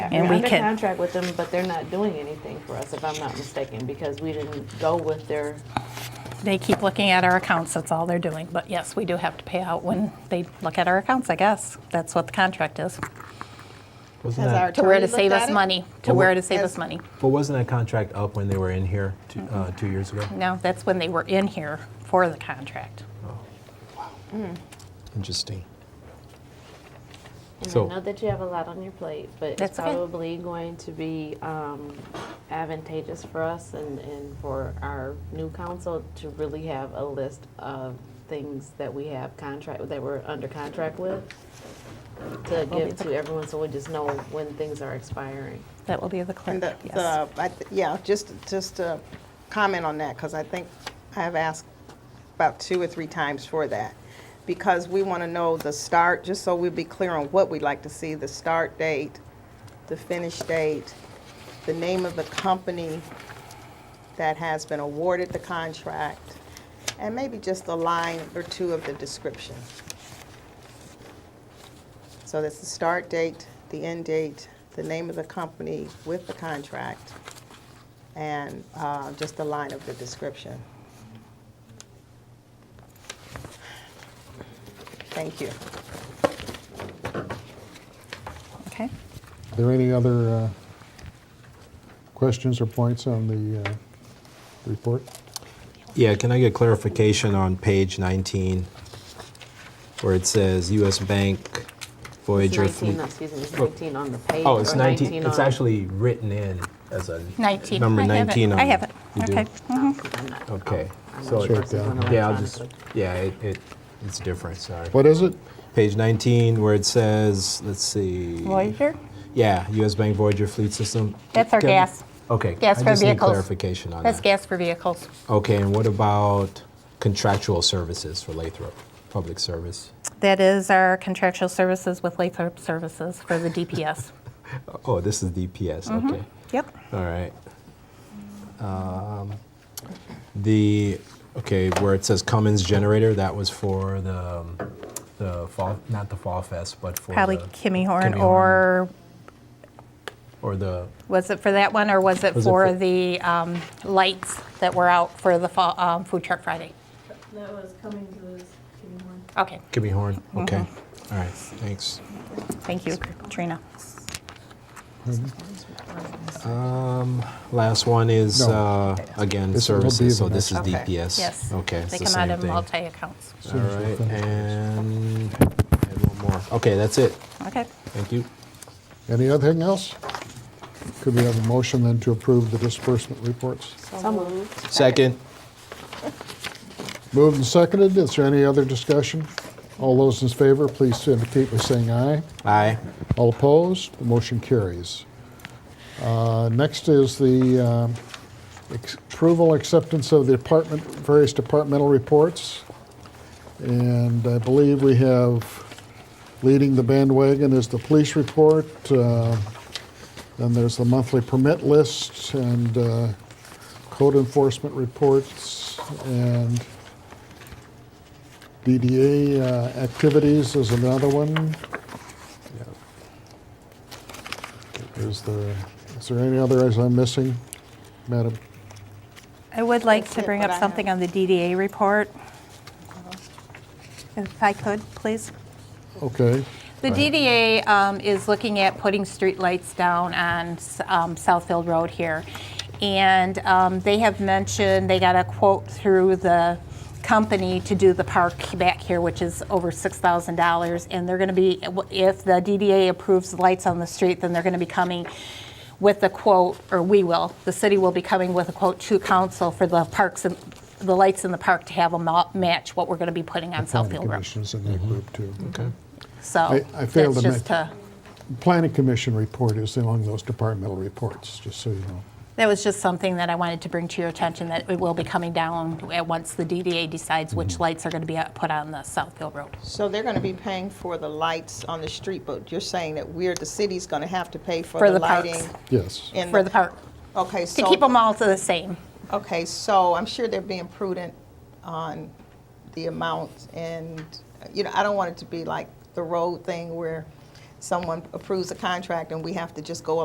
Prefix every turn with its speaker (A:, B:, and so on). A: and
B: We're
A: we
B: under
A: can,
B: contract with them, but they're not doing anything for us, if I'm not mistaken, because we didn't go with their.
A: they keep looking at our accounts, that's all they're doing. But yes, we do have to pay out when they look at our accounts, I guess. That's what the contract is.
C: Wasn't
D: Has
C: that-
D: our-
A: To where to
D: Attorney
A: save
D: looked
A: us
D: at it?
A: money, to where to save
D: As-
A: us money.
C: but wasn't that contract up when they were in here two, uh, two years ago?
A: No, that's when they were in here for the contract.
C: Interesting.
B: And I
C: So-
B: know that you have a lot on your plate, but it's
A: That's okay.
B: probably going to be um, advantageous for us and, and for our new council to really have a list of things that we have contract, that we're under contract with, to give to everyone, so we just know when things are expiring.
A: That will be the
D: And uh,
A: clerk,
D: the,
A: yes.
D: the, I th- yeah, just, just to comment on that, because I think I have asked about two or three times for that. Because we want to know the start, just so we'll be clear on what we'd like to see, the start date, the finish date, the name of the company that has been awarded the contract, and maybe just a line or two of the description. So that's the start date, the end date, the name of the company with the contract, and uh, just the line of the description. Thank you.
A: Okay.
E: Are there any other uh, questions or points on the uh, report?
C: Yeah, can I get clarification on page 19 where it says U.S. Bank
B: It's
C: Voyager
B: 19,
C: Fleet?
B: no, excuse me, it's 19 on the page.
C: Oh, it's
B: or
C: 19. It's
B: on-
C: actually written in as a
A: 19.
C: number
A: I have it.
C: 19 on
A: I have it,
C: You do?
A: okay. Hmm,
B: I'm not-
C: Okay.
B: Oh, I'm
C: So
B: not
C: it,
B: sure if it's
E: down.
B: going
C: yeah, I'll just
B: electronically.
C: yeah, it, it it's different. Sorry.
E: What is it?
C: Page 19 where it says, let's see.
A: Voyager?
C: Yeah, U.S. Bank Voyager Fleet System.
A: That's our
C: Can-
A: gas.
C: Okay.
A: Gas
C: I
A: for
C: just need
A: vehicles.
C: clarification on
A: That's
C: that.
A: gas for vehicles.
C: Okay, and what about contractual services for Lathrop, public service?
A: That is our contractual services with Lathrop Services for the DPS.
C: Oh, this is DPS,
A: Mm-hmm.
C: okay.
A: Yep.
C: All right. Um, The, okay, where it says Cummins generator, that was for the, um, the fall, not the Fall Fest, but for
A: Probably
C: the-
A: Kimmy Horn,
C: Kimmy
A: or
C: Or the,
A: was it for that one, or was it
C: Was it
A: for
C: for-
A: the um, lights that were out for the fall- um, Food Truck Friday?
F: That was coming to us, giving one.
A: Okay,
C: Kimmy Horn,
A: Mm-hmm.
C: okay. All right, thanks.
A: thank you, Trina.
C: Um, Last one is,
E: No.
C: uh, again,
E: This will be
C: services,
E: the
C: so this is
E: next
D: one. Okay.
C: DPS.
A: Yes.
C: Okay, it's
A: They
C: the
A: come out
C: same
A: of
C: thing. All
A: multi-accounts.
E: soon as we
C: right,
E: finish.
C: and I had one more. Okay, that's it.
A: Okay.
C: Thank you.
E: Any other thing else? Could we have a motion then to approve the disbursement reports?
B: So moved.
C: Second.
E: Moved and seconded, is there any other discussion? All those in favor, please indicate by saying aye.
C: Aye.
E: All opposed, the motion carries. Uh, Next is the um, ex- approval, acceptance of the department, various departmental reports. And I believe we have, leading the bandwagon is the police report. uh, Then there's the monthly permit list and uh, code enforcement reports and DDA uh, activities is another one. Is there, is there any others I'm missing, Madam?
A: I would like
D: That's
A: to
D: it,
A: bring
D: what I
A: up
D: have.
A: something on the DDA report. If I could, please.
E: Okay,
A: The DDA um, is looking at putting streetlights down on um, Southfield Road here. And um, they have mentioned, they got a quote through the company to do the park back here, which is over $6,000. And they're going to be, if the DDA approves lights on the street, then they're going to be coming with a quote, or we will, the city will be coming with a quote to council for the parks and, the lights in the park to have them ma- match what we're going to be putting on
E: planning
A: Southfield Road.
E: commissions in that group too.
C: Okay.
A: So
E: I- I failed
A: that's
E: to
A: just
E: mention-
A: to-
E: Planning commission report is among those departmental reports, just so you know.
A: That was just something that I wanted to bring to your attention, that it will be coming down at once the DDA decides which lights are going to be out- put on the Southfield Road.
D: So they're going to be paying for the lights on the street, but you're saying that we're, the city's going to have to pay for
A: For
D: the
A: the parks.
D: lighting?
E: Yes.
D: in
A: For the park,
D: Okay,
A: to
D: so.
A: keep them all to the same.
D: Okay, so I'm sure they're being prudent on the amount and, you know, I don't want it to be like the road thing where someone approves a contract and we have to just go